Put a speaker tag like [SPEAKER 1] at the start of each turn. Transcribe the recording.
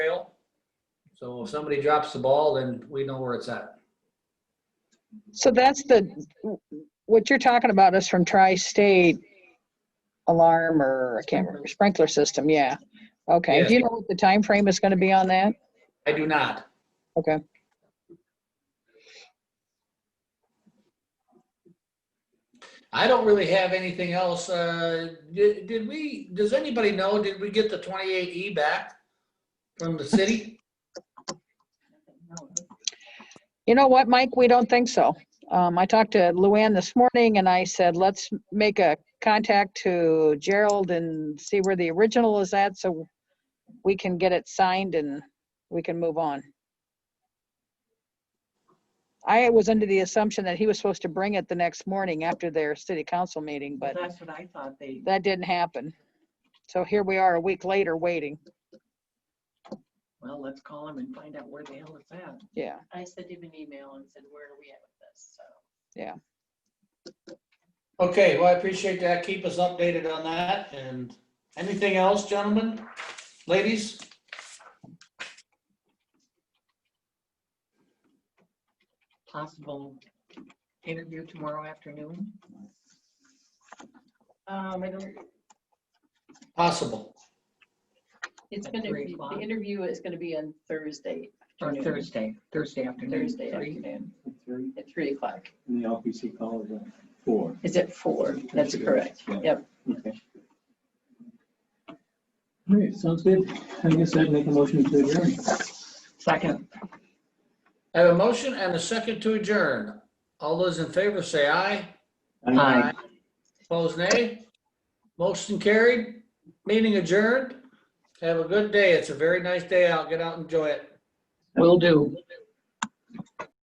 [SPEAKER 1] So if somebody drops the ball, then we know where it's at.
[SPEAKER 2] So that's the, what you're talking about is from tri-state alarm or, I can't remember, sprinkler system, yeah. Okay, do you know what the time frame is gonna be on that?
[SPEAKER 1] I do not.
[SPEAKER 2] Okay.
[SPEAKER 1] I don't really have anything else. Uh, did, did we, does anybody know, did we get the 28E back from the city?
[SPEAKER 2] You know what, Mike, we don't think so. Um, I talked to Luann this morning and I said, let's make a contact to Gerald and see where the original is at, so we can get it signed and we can move on. I was under the assumption that he was supposed to bring it the next morning after their city council meeting, but
[SPEAKER 3] That's what I thought they,
[SPEAKER 2] that didn't happen. So here we are a week later waiting,
[SPEAKER 3] well, let's call them and find out where the hell it's at.
[SPEAKER 2] yeah.
[SPEAKER 4] I sent him an email and said, where are we at with this? So.
[SPEAKER 1] Okay, well, I appreciate that. Keep us updated on that. And anything else, gentlemen, ladies?
[SPEAKER 3] Possible interview tomorrow afternoon.
[SPEAKER 4] Um, I don't,
[SPEAKER 1] Possible.
[SPEAKER 4] it's
[SPEAKER 3] At
[SPEAKER 4] gonna
[SPEAKER 3] three
[SPEAKER 4] be, the
[SPEAKER 3] o'clock.
[SPEAKER 4] interview is gonna be on Thursday
[SPEAKER 3] Or
[SPEAKER 4] Afternoon.
[SPEAKER 3] Thursday, Thursday afternoon.
[SPEAKER 4] Thursday
[SPEAKER 3] Three.
[SPEAKER 4] afternoon
[SPEAKER 5] Three,
[SPEAKER 4] at three o'clock.
[SPEAKER 5] and the LPC call is at four.
[SPEAKER 4] Is it four? That's correct.
[SPEAKER 5] Yeah.
[SPEAKER 4] Yep.
[SPEAKER 5] Okay. All right, sounds good. I guess I'd make a motion to adjourn.
[SPEAKER 3] Second,
[SPEAKER 1] I have a motion and a second to adjourn. All those in favor say aye.
[SPEAKER 3] Aye.
[SPEAKER 1] Opposed, nay? Motion carried, meeting adjourned. Have a good day. It's a very nice day out. Get out and enjoy it.
[SPEAKER 3] will do.